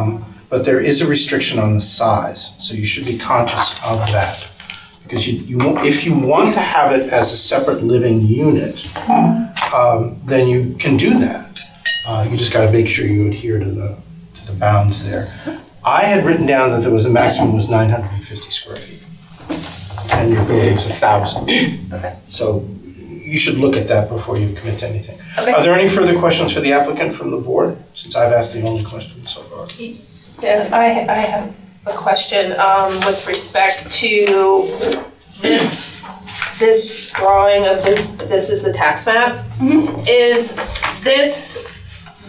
Um, But there is a restriction on the size, so you should be conscious of that. Because you, you, won't- if you want to have it as a separate living unit, um, then you can do that. Uh, you just gotta make sure you adhere to the, to the bounds there. I had written down that there was, a maximum was nine hundred and fifty square feet. And your building's a thousand. Okay. So you should look at that before you commit to anything. Okay. Are there any further questions for the applicant from the board, since I've asked the only question so far? Yeah, I, I have a question, um, with respect to this, this drawing of this, this is the tax map. Is this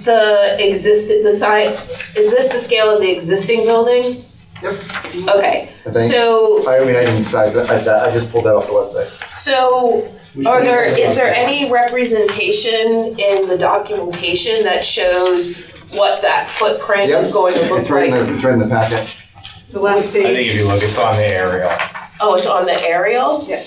the existing, the size, is this the scale of the existing building? Okay, I think. so, I mean, I didn't decide that, I, that- I just pulled that off the website. so are there, is there any representation in the documentation that shows what that footprint is Yep. going to look It's right in like? the, it's right in the packet. The last I page, think if you look, it's on the aerial. Oh, it's on the aerial? Yeah,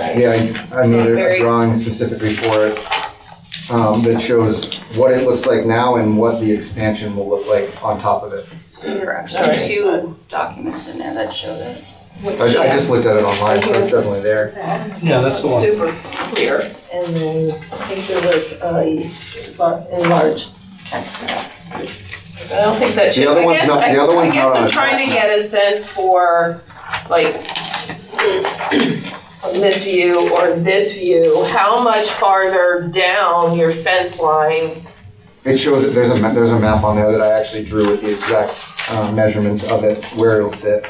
I I made a- a Very- drawing specifically for it, um, that shows what it looks like now and what the expansion will look like on top of it. There were actually Alright. two documents in there that showed it. I, I just looked at it online, so it's definitely there. Yeah, that's the one. super clear, And then I think there was a lar- enlarged tax map. I don't think that The should, other I one's guess, not- the I other I one's guess not on I'm the trying to top. get a sense for, like, on this view or this view, how much farther down your fence line? It shows, it- there's a, ma- there's a map on there that I actually drew with the exact, uh, measurements of it, where it'll sit.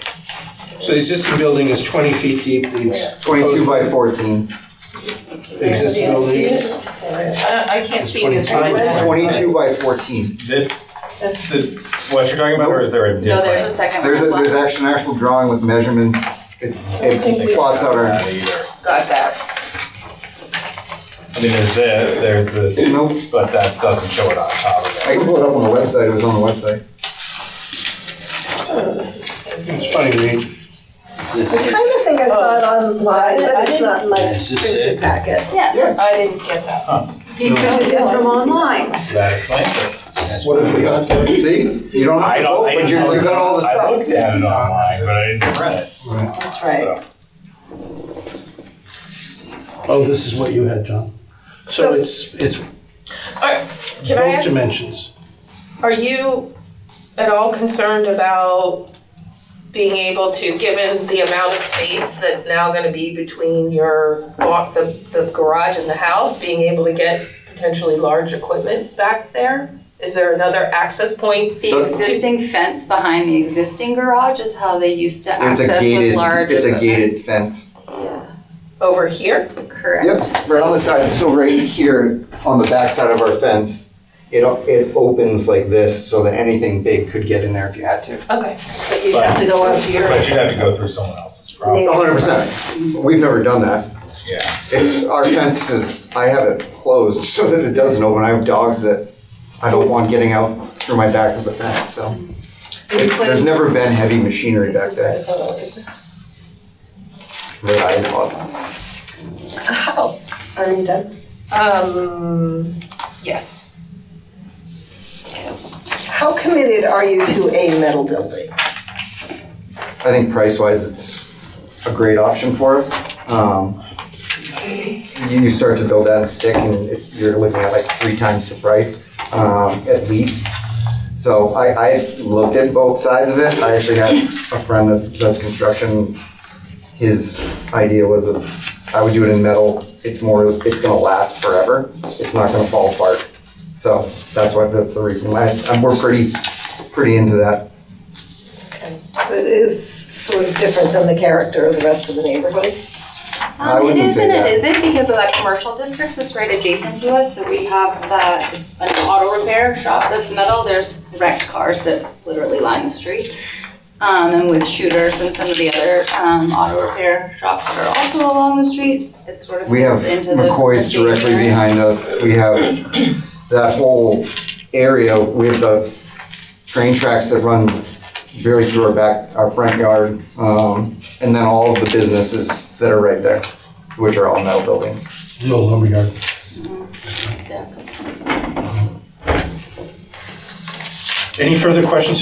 So the existing building is 20 feet deep, the ex- Twenty-two by fourteen. the existing building is, I, I can't It's see the 22. time. It's twenty-two by fourteen. This, the, what you're talking about, or is there a No, there's a different? second There's a, one there's left. actually an actual drawing with measurements. It, it plots out our, Not either. Got that. I mean, there's this, there's this, nope, but that doesn't show it on top of I can pull it up on the website, it was on the website. it's funny, we- I kind of think I saw it online, but it's not in my printed packet. Yeah. I didn't get that. you know, it's from online. it. That explains it. What have we got? See, you don't have I to don't, vote, I but didn't. you, you look- got all the I stuff. looked at it online, but I didn't print it, That's so. oh, this is what you had, John. So So- it's, it's Can I both ask, dimensions. are you at all concerned about being able to, given the amount of space that's now gonna be between your, walk- the, the garage and the house, being able to get potentially large equipment back there? Is there another access point? The existing fence behind the existing garage is how they used to It's a access with gated, large. it's a equipment. gated fence. Over here? Correct. Um, Yep, right on the side, so right here, on the back side of our fence, it, o- it opens like this so that anything big could get in there if you had to. Okay. So you'd have to go onto your, But you'd have to go through someone else's problem, A hundred percent, we've never done that. yeah. It's, our fence is, I have it closed so that it doesn't open. I have dogs that I don't want getting out through my back of the fence, so. It- There's never been heavy machinery back there that I know of. How? Are you done? Um, yes. How committed are you to a metal building? I think price-wise, it's a great option for us. Um, You you start to build that stick and it's, you're looking at like three times the price, um, at least. So I, I looked at both sides of it. I actually have a friend that does construction. His idea was of, I would do it in metal. It's more, it's gonna last forever. It's not gonna fall apart. So that's why, that's the reason. I, I'm, we're pretty, pretty into that. It is sort of different than the character of the rest of the neighborhood. I Um, it wouldn't is say and it that. isn't because of that commercial district that's right adjacent to us. So we have that, an auto repair shop that's metal. There's wrecked cars that literally line the street. Um, and with shooters and some of the other, um, auto repair shops that are also along the street, it sort of We have fits into the. McCoy's the directly stationary. behind us. We have that whole area with the train tracks that run very through our back, our front yard. Um, and then all of the businesses that are right there, which are all metal buildings. The old lumberyard. Exactly. Any further questions